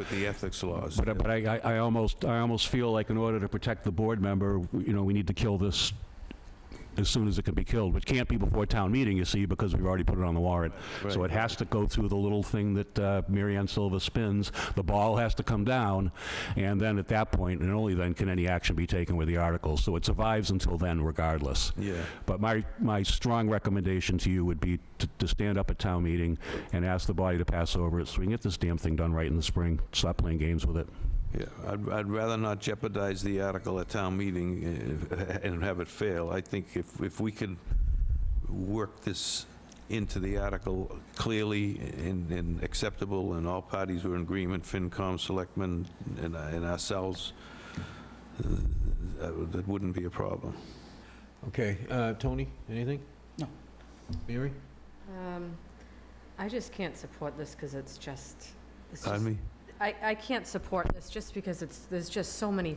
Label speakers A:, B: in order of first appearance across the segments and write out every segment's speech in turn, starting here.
A: with the ethics laws.
B: But, I- but I, I- I almost, I almost feel like in order to protect the board member, you know, we need to kill this as soon as it can be killed, which can't be before town meeting, you see, because we've already put it on the warrant. So it has to go through the little thing that uh, Mary Ann Silva spins, the ball has to come down, and then at that point, and only then, can any action be taken with the article. So it survives until then regardless.
A: Yeah.
B: But my, my strong recommendation to you would be to, to stand up at town meeting and ask the body to pass over it so we can get this damn thing done right in the spring. Stop playing games with it.
A: Yeah, I'd, I'd rather not jeopardize the article at town meeting uh, and have it fail. I think if, if we could work this into the article clearly and, and acceptable, and all parties were in agreement, FinCom, Selectmen, and, and ourselves, uh, that that wouldn't be a problem.
C: Okay, uh, Tony, anything?
D: No.
C: Mary?
E: Um, I just can't support this because it's just, it's just,
A: Pardon me?
E: I, I can't support this just because it's, there's just so many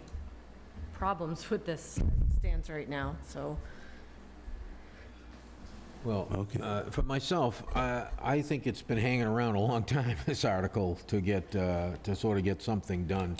E: problems with this as it stands right now, so.
C: Well,
A: Okay.
C: uh, for myself, I I think it's been hanging around a long time, this article, to get, uh, to sort of get something done.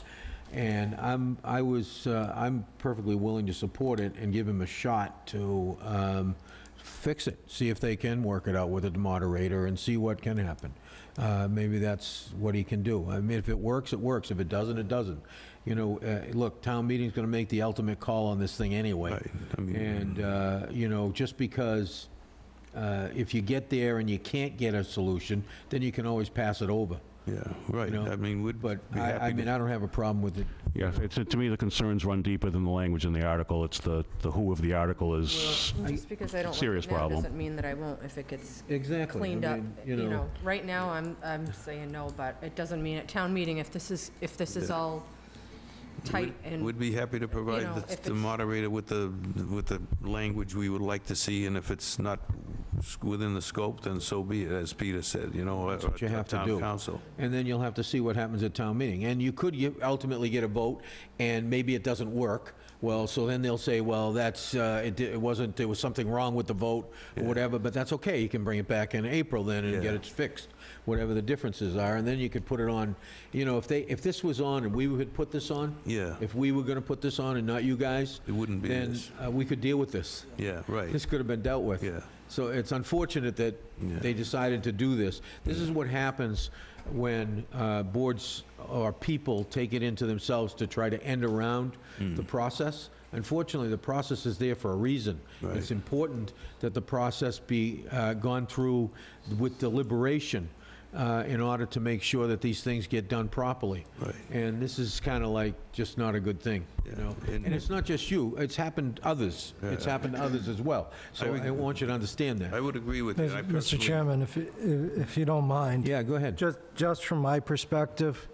C: And I'm, I was, uh, I'm perfectly willing to support it and give him a shot to um, fix it, see if they can work it out with the moderator and see what can happen. Uh, Maybe that's what he can do. I mean, if it works, it works. If it doesn't, it doesn't. You know, uh, look, town meeting's going to make the ultimate call on this thing anyway.
A: Right, I mean-
C: And, uh, you know, just because uh, if you get there and you can't get a solution, then you can always pass it over.
A: Yeah, right,
C: know,
A: I mean, we'd
C: But
A: be
C: I, I
A: happy
C: mean,
A: to...
C: I don't have a problem with it.
B: Yeah, it's, to me, the concerns run deeper than the language in the article. It's the, the who of the article is,
E: Just because I don't like
B: serious
E: it now
B: problem.
E: doesn't mean that I won't if it gets
C: Exactly.
E: cleaned up. You know, right now, I'm, I'm saying no, but it doesn't mean at town meeting, if this is, if this is
A: Yeah.
E: all tight and.
A: We'd be happy to
E: know,
A: provide the-
E: if
A: the
E: it's-
A: moderator with the, with the language we would like to see, and if it's not s- within the scope, then so be it, as Peter said, you know, or-
C: what you
A: or
C: have to
A: town
C: do.
A: council.
C: And then you'll have to see what happens at town meeting. And you could get- ultimately get a vote, and maybe it doesn't work. Well, so then they'll say, well, that's, uh, it di- it wasn't, there was something wrong with the vote, or whatever, but that's okay. You can bring it back in April then and get
A: Yeah.
C: it fixed, whatever the differences are. And then you could put it on, you know, if they, if this was on and we would put this on?
A: Yeah.
C: If we were going to put this on and not you guys?
A: It wouldn't be
C: Then
A: this.
C: uh, we could deal with this.
A: Yeah, right.
C: This could have been dealt with.
A: Yeah.
C: So it's unfortunate that
A: Yeah.
C: they decided to do this. This is what happens when uh, boards or people take it into themselves to try to end around
A: Mm.
C: the process. Unfortunately, the process is there for a reason. It's
A: Right.
C: important that the process be uh, gone through with deliberation uh, in order to make sure that these things get done properly.
A: Right.
C: And this is kind of like just not a good thing, you know?
A: and-
C: And it's not just you, it's happened others. It's happened to others as well. So I want you to understand
A: I
C: that.
A: would agree with you. I
F: Mr.
A: personally-
F: Chairman, if, you- if if you don't mind.
C: Yeah, go ahead.
F: Just, just from my perspective,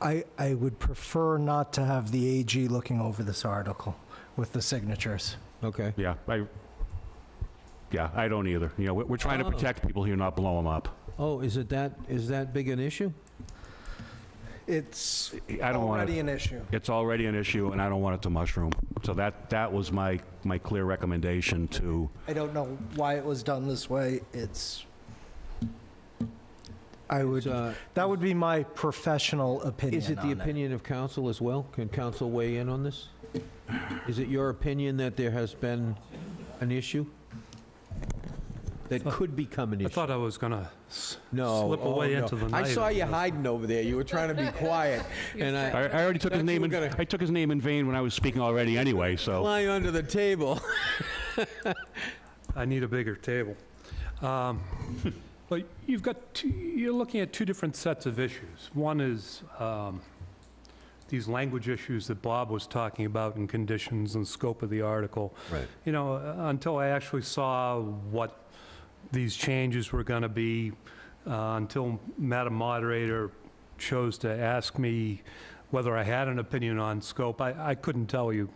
F: I, I would prefer not to have the AG looking over this article with the signatures.
C: Okay.
B: yeah, I, yeah, I don't either. You know, we're, we're trying to
C: Oh.
B: protect people here, not blow them up.
C: Oh, is it that, is that big an issue?
F: It's
B: I don't want to.
F: already an issue.
B: It's already an issue, and I don't want it to mushroom. So that, that was my, my clear recommendation to,
F: I don't know why it was done this way. It's, I would,
C: It's, uh,
F: that would be my professional opinion
C: Is it the
F: on
C: opinion of council as well? Can council weigh in on this? Is it your opinion that there has been an issue? That could become an
G: I
C: issue?
G: thought I was gonna s-
C: No.
G: slip
C: oh,
G: away
C: no.
G: into the
C: I
G: night.
C: saw you hiding over there. You were trying to be quiet. And
B: I,
C: I
B: I already took his
C: Thought you
B: name,
C: were
B: in
C: gonna-
B: I took his name in vain when I was speaking already anyway, so.
C: fly under the table.
G: I need a bigger table. Um, But you've got, two- you're looking at two different sets of issues. One is um, these language issues that Bob was talking about and conditions and scope of the article.
C: Right.
G: You know, uh, until I actually saw what these changes were going to be, uh, until Madam Moderator chose to ask me whether I had an opinion on scope, I I couldn't tell you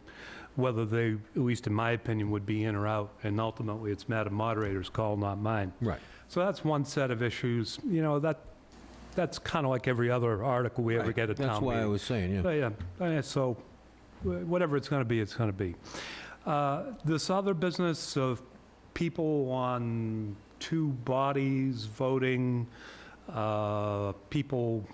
G: whether they, at least in my opinion, would be in or out, and ultimately, it's Madam Moderator's call, not mine.
C: Right.
G: So that's one set of issues, you know, that, that's kind of like every other article we ever get at town
C: That's why I
G: meeting.
C: was saying, yeah.
G: But Yeah, uh, so wh- whatever it's going to be, it's going to be. Uh, This other business of people on two bodies voting, uh, people